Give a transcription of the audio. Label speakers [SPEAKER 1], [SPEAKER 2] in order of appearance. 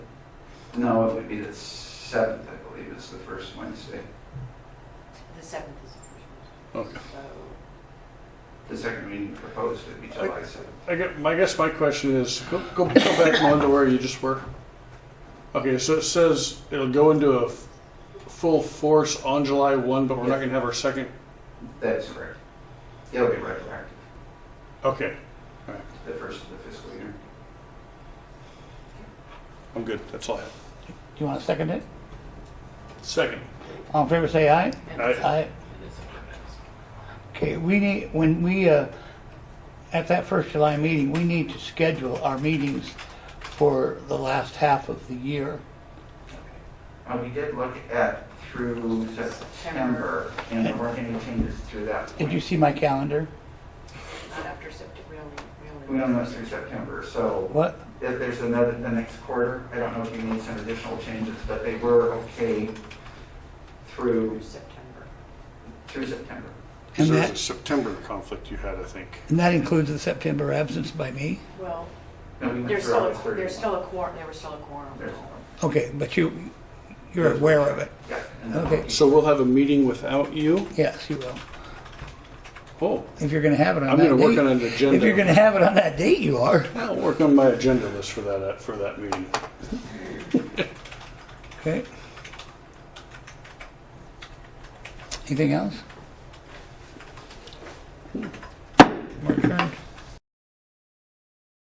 [SPEAKER 1] No, it would be the seventh, I believe, is the first Wednesday.
[SPEAKER 2] The seventh is the
[SPEAKER 3] Okay.
[SPEAKER 2] first one.
[SPEAKER 1] The second meeting proposed would be July seventh.
[SPEAKER 3] I guess, my guess my question is go, go, go back on to where you just were. Okay, so it says it'll go into a f- full force on July 1, but we're not going to have our second.
[SPEAKER 1] That's correct. It'll be retroactive,
[SPEAKER 3] Okay,
[SPEAKER 1] the first of the fiscal year.
[SPEAKER 3] I'm good. That's all I have.
[SPEAKER 4] you want to second it?
[SPEAKER 3] Second.
[SPEAKER 4] All in favor, say aye.
[SPEAKER 2] So.
[SPEAKER 3] Aye.
[SPEAKER 4] Aye. Okay, we need, when we, uh, at that first July meeting, we need to schedule our meetings for the last half of the year.
[SPEAKER 1] Uh, we did look at through September, and there weren't any changes through that
[SPEAKER 4] Did you
[SPEAKER 1] point.
[SPEAKER 4] see my calendar?
[SPEAKER 2] Not after September, we only,
[SPEAKER 1] We
[SPEAKER 2] we
[SPEAKER 1] don't know
[SPEAKER 2] only.
[SPEAKER 1] through September, so
[SPEAKER 4] What?
[SPEAKER 1] if there's another, the next quarter, I don't know if you need some additional changes, but they were okay through,
[SPEAKER 2] Through September.
[SPEAKER 1] through September.
[SPEAKER 4] And
[SPEAKER 3] There's
[SPEAKER 4] that-
[SPEAKER 3] a September conflict you had, I think.
[SPEAKER 4] And that includes the September absence by me?
[SPEAKER 2] Well,
[SPEAKER 1] No, we went
[SPEAKER 2] there's
[SPEAKER 1] through
[SPEAKER 2] still,
[SPEAKER 1] August
[SPEAKER 2] a- there's
[SPEAKER 1] 31.
[SPEAKER 2] still a quorum, there was still a quorum.
[SPEAKER 1] There's-
[SPEAKER 4] Okay, but you, you're aware of it?
[SPEAKER 1] Yeah. and then-
[SPEAKER 4] Okay.
[SPEAKER 3] So we'll have a meeting without you.
[SPEAKER 4] Yes, you will.
[SPEAKER 3] Oh,
[SPEAKER 4] If you're gonna have it on
[SPEAKER 3] I'm
[SPEAKER 4] that
[SPEAKER 3] going to work
[SPEAKER 4] date-
[SPEAKER 3] on an agenda.
[SPEAKER 4] If you're gonna have it on that date, you are.
[SPEAKER 3] I'll work on my agenda list for that for that meeting.
[SPEAKER 4] Okay. Anything else?